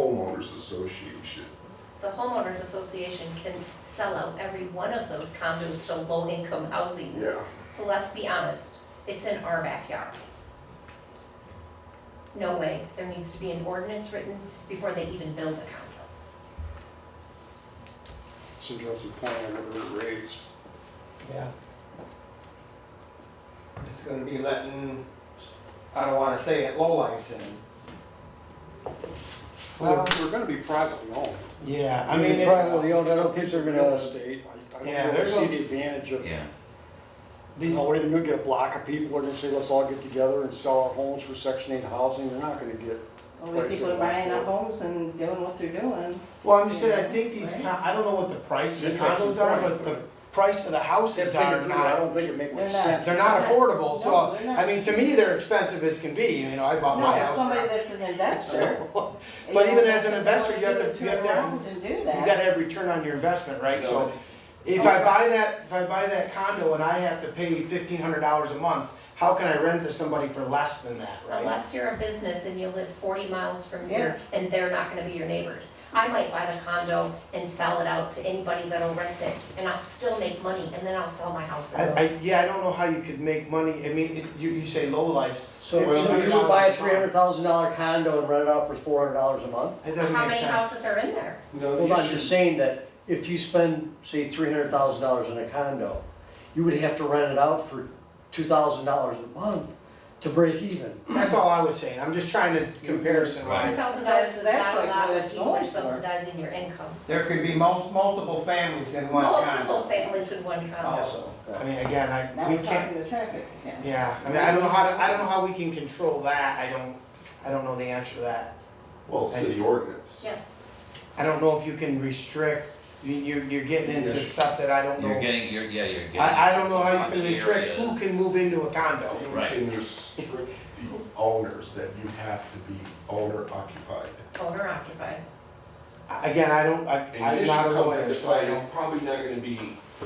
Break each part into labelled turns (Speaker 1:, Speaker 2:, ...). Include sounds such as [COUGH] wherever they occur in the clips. Speaker 1: homeowners association.
Speaker 2: The homeowners association can sell out every one of those condos to low-income housing.
Speaker 1: Yeah.
Speaker 2: So let's be honest, it's in our backyard. No way, there needs to be an ordinance written before they even build a condo.
Speaker 3: St. Joseph Point, I would have raised.
Speaker 4: Yeah. It's gonna be letting, I don't wanna say it, lowlifes in.
Speaker 3: Well, we're gonna be privately owned.
Speaker 4: Yeah,
Speaker 5: I mean, privately owned, I don't think they're
Speaker 3: Real
Speaker 5: gonna,
Speaker 3: estate, I- I
Speaker 4: Yeah,
Speaker 3: don't really
Speaker 4: there's
Speaker 3: see
Speaker 4: no-
Speaker 3: the advantage of,
Speaker 6: Yeah,
Speaker 3: you know, whether you get a block of people, and they say, let's all get together and sell our homes for section eight housing, they're not gonna get.
Speaker 7: Only people are buying up homes and doing what they're doing.
Speaker 8: Well, I'm just saying, I think these, con- I don't know what the price of the condos are, but the price of the
Speaker 3: That's
Speaker 8: houses are
Speaker 3: thinking through, I
Speaker 8: not,
Speaker 3: don't think it makes
Speaker 7: They're
Speaker 3: much
Speaker 7: not.
Speaker 3: sense.
Speaker 8: they're not affordable,
Speaker 7: No,
Speaker 8: so,
Speaker 7: they're not.
Speaker 8: I mean, to me, they're expensive as can be, you know, I bought my
Speaker 7: No,
Speaker 8: house.
Speaker 7: somebody that's an investor.
Speaker 8: [LAUGHS] So,
Speaker 7: you
Speaker 8: But
Speaker 7: know,
Speaker 8: even as an
Speaker 7: that's
Speaker 8: investor,
Speaker 7: what
Speaker 8: you have
Speaker 7: they
Speaker 8: to-
Speaker 7: do,
Speaker 8: you have to
Speaker 7: turn
Speaker 8: have-
Speaker 7: around and do
Speaker 8: you
Speaker 7: that.
Speaker 8: gotta have return on your investment, right, so,
Speaker 3: No.
Speaker 8: if I buy that, if I buy that condo and I have to pay fifteen hundred dollars a month, how can I rent to somebody for less than that, right?
Speaker 2: Unless you're a business and you live forty miles from
Speaker 7: Yeah.
Speaker 2: here and they're not gonna be your neighbors. I might buy the condo and sell it out to anybody that'll rent it and I'll still make money and then I'll sell my house.
Speaker 8: I, I, yeah, I don't know how you could make money, I mean, it- you, you say lowlifes,
Speaker 5: so
Speaker 8: Well-
Speaker 5: so you would buy a three hundred thousand dollar condo and rent it out for four hundred dollars a month?
Speaker 8: it doesn't
Speaker 2: How
Speaker 8: make
Speaker 2: many
Speaker 8: sense.
Speaker 2: houses are in there?
Speaker 3: No,
Speaker 5: Well,
Speaker 3: the
Speaker 5: I'm
Speaker 3: issue-
Speaker 5: just saying that if you spend, say, three hundred thousand dollars in a condo, you would have to rent it out for two thousand dollars a month to break even.
Speaker 8: That's all I was saying, I'm just trying to comparison
Speaker 2: Two
Speaker 6: Right.
Speaker 8: wise.
Speaker 2: thousand dollars is
Speaker 7: That's- that's
Speaker 2: not a
Speaker 7: like
Speaker 2: lot
Speaker 7: what
Speaker 2: when
Speaker 7: it's
Speaker 2: people are
Speaker 7: going for.
Speaker 2: subsidizing your income.
Speaker 4: There could be mul- multiple families in one condo.
Speaker 2: Multiple families in one condo.
Speaker 4: Also.
Speaker 8: I mean, again,
Speaker 7: Now
Speaker 8: I, we
Speaker 7: we're
Speaker 8: can't,
Speaker 7: talking the traffic again.
Speaker 8: yeah, I mean, I don't know how, to- I don't know how we can control that, I don't, I don't know the answer to that.
Speaker 1: Well, city ordinance.
Speaker 2: Yes,
Speaker 8: I don't know if you can restrict, you, you're, you're getting into stuff that I don't know.
Speaker 6: you're getting, you're, yeah, you're getting.
Speaker 8: I, I don't know how
Speaker 6: some
Speaker 8: you can
Speaker 6: touchy
Speaker 8: restrict who
Speaker 6: areas.
Speaker 8: can move into a condo.
Speaker 1: You
Speaker 6: Right.
Speaker 1: can restrict the owners that you have to be owner occupied.
Speaker 2: owner occupied.
Speaker 8: I- Again, I don't, I,
Speaker 1: And the
Speaker 8: I'm
Speaker 1: issue
Speaker 8: not a
Speaker 1: comes
Speaker 8: lawyer,
Speaker 1: into
Speaker 8: so I
Speaker 1: play, it's
Speaker 8: don't.
Speaker 1: probably not gonna be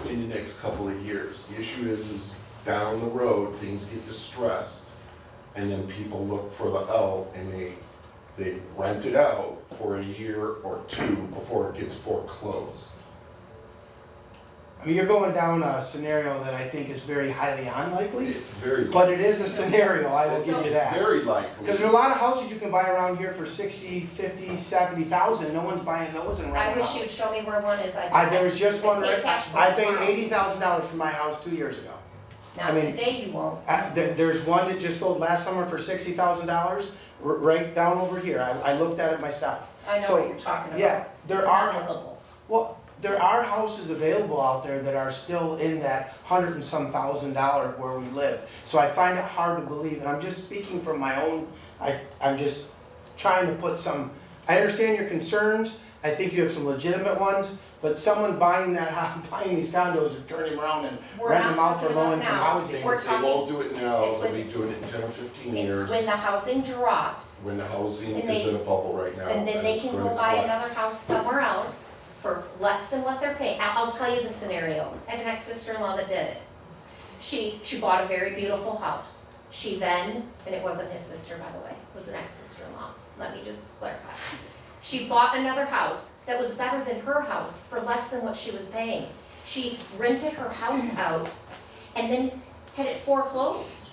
Speaker 1: in the next couple of years. The issue is, is down the road, things get distressed, and then people look for the L, and they, they rent it out for a year or two before it gets foreclosed.
Speaker 8: I mean, you're going down a scenario that I think is very highly unlikely,
Speaker 1: It's very.
Speaker 8: but it is a scenario, I will give you
Speaker 1: It's-
Speaker 8: that.
Speaker 1: It's very likely.
Speaker 8: Because there are a lot of houses you can buy around here for sixty, fifty, seventy thousand, no one's buying those in
Speaker 2: I
Speaker 8: Round
Speaker 2: wish
Speaker 8: Rock.
Speaker 2: you'd show me where one is, I'd.
Speaker 8: I, there was just one,
Speaker 2: I'd pay
Speaker 8: right-
Speaker 2: cash for
Speaker 8: I
Speaker 2: it
Speaker 8: paid
Speaker 2: tomorrow.
Speaker 8: eighty thousand dollars for my house two years ago.
Speaker 2: Now,
Speaker 8: I mean-
Speaker 2: today you won't,
Speaker 8: I, there, there's one that just sold last summer for sixty thousand dollars, r- right down over here, I, I looked at it myself.
Speaker 2: I know
Speaker 8: So,
Speaker 2: what you're talking about.
Speaker 8: Yeah, there
Speaker 2: It's
Speaker 8: are,
Speaker 2: not livable.
Speaker 8: well, there are houses available out there that are still in that hundred and some thousand dollar where we live. So I find it hard to believe, and I'm just speaking from my own, I, I'm just trying to put some, I understand your concerns, I think you have some legitimate ones, but someone buying that, [LAUGHS] hou- buying these condos and turning them around and
Speaker 2: We're
Speaker 8: renting them
Speaker 2: not
Speaker 8: out for
Speaker 2: talking about
Speaker 8: low income
Speaker 2: now.
Speaker 8: housing.
Speaker 2: We're
Speaker 1: They won't do it now,
Speaker 2: It's
Speaker 1: they'll
Speaker 2: when-
Speaker 1: be doing it in ten or fifteen
Speaker 2: It's
Speaker 1: years,
Speaker 2: when the housing drops,
Speaker 1: when the housing
Speaker 2: and
Speaker 1: is
Speaker 2: they-
Speaker 1: in a bubble right now.
Speaker 2: and then they
Speaker 1: it's
Speaker 2: can
Speaker 1: going
Speaker 2: go
Speaker 1: to
Speaker 2: buy another
Speaker 1: collapse.
Speaker 2: house somewhere else for less than what they're paying. I'll, I'll tell you the scenario. I had an ex-sister-in-law that did it. She, she bought a very beautiful house. She then, and it wasn't his sister, by the way, it was an ex-sister-in-law, let me just clarify. She bought another house that was better than her house for less than what she was paying. She rented her
Speaker 8: Hmm.
Speaker 2: house out and then had it foreclosed.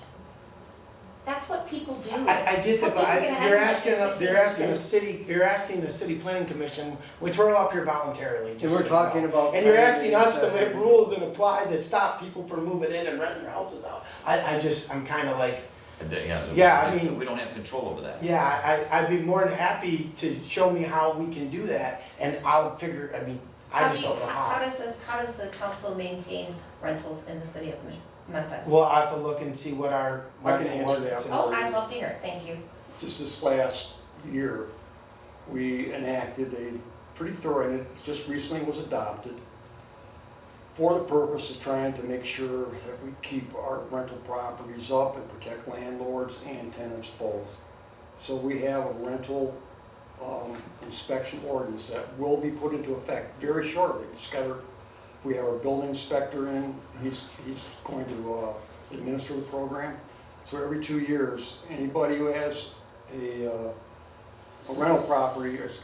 Speaker 2: That's what people do.
Speaker 8: I, I get that, but
Speaker 2: Well, you're gonna
Speaker 8: I,
Speaker 2: have
Speaker 8: you're
Speaker 2: to make
Speaker 8: asking,
Speaker 2: a
Speaker 8: you're asking the
Speaker 2: decision.
Speaker 8: city, you're asking the city planning commission, which we're all up here voluntarily, just
Speaker 5: And we're
Speaker 8: so you know.
Speaker 5: talking about.
Speaker 8: And you're asking us to make rules and apply to stop people from moving in and renting their houses out. I, I just, I'm kinda like,
Speaker 6: And they- Yeah.
Speaker 8: Yeah, I
Speaker 6: we-
Speaker 8: mean-
Speaker 6: We don't have control over that.
Speaker 8: yeah, I, I'd be more than happy to show me how we can do that, and I'll figure, I mean, I
Speaker 2: How
Speaker 8: just
Speaker 2: do you-
Speaker 8: don't know
Speaker 2: How
Speaker 8: how.
Speaker 2: does this, how does the council maintain rentals in the city of Mem- Memphis?
Speaker 8: Well, I have to look and see what our
Speaker 3: I can
Speaker 8: rental
Speaker 3: answer that.
Speaker 8: ordinance is.
Speaker 2: Oh, I'd love to hear it, thank you.
Speaker 3: Just this last year, we enacted a pretty thorough, and it just recently was adopted for the purpose of trying to make sure that we keep our rental properties up and protect landlords and tenants both. So we have a rental um, inspection ordinance that will be put into effect very shortly. It's got our- we have our building inspector in, he's, he's going to uh, administer the program. So every two years, anybody who has a, uh, a rental property is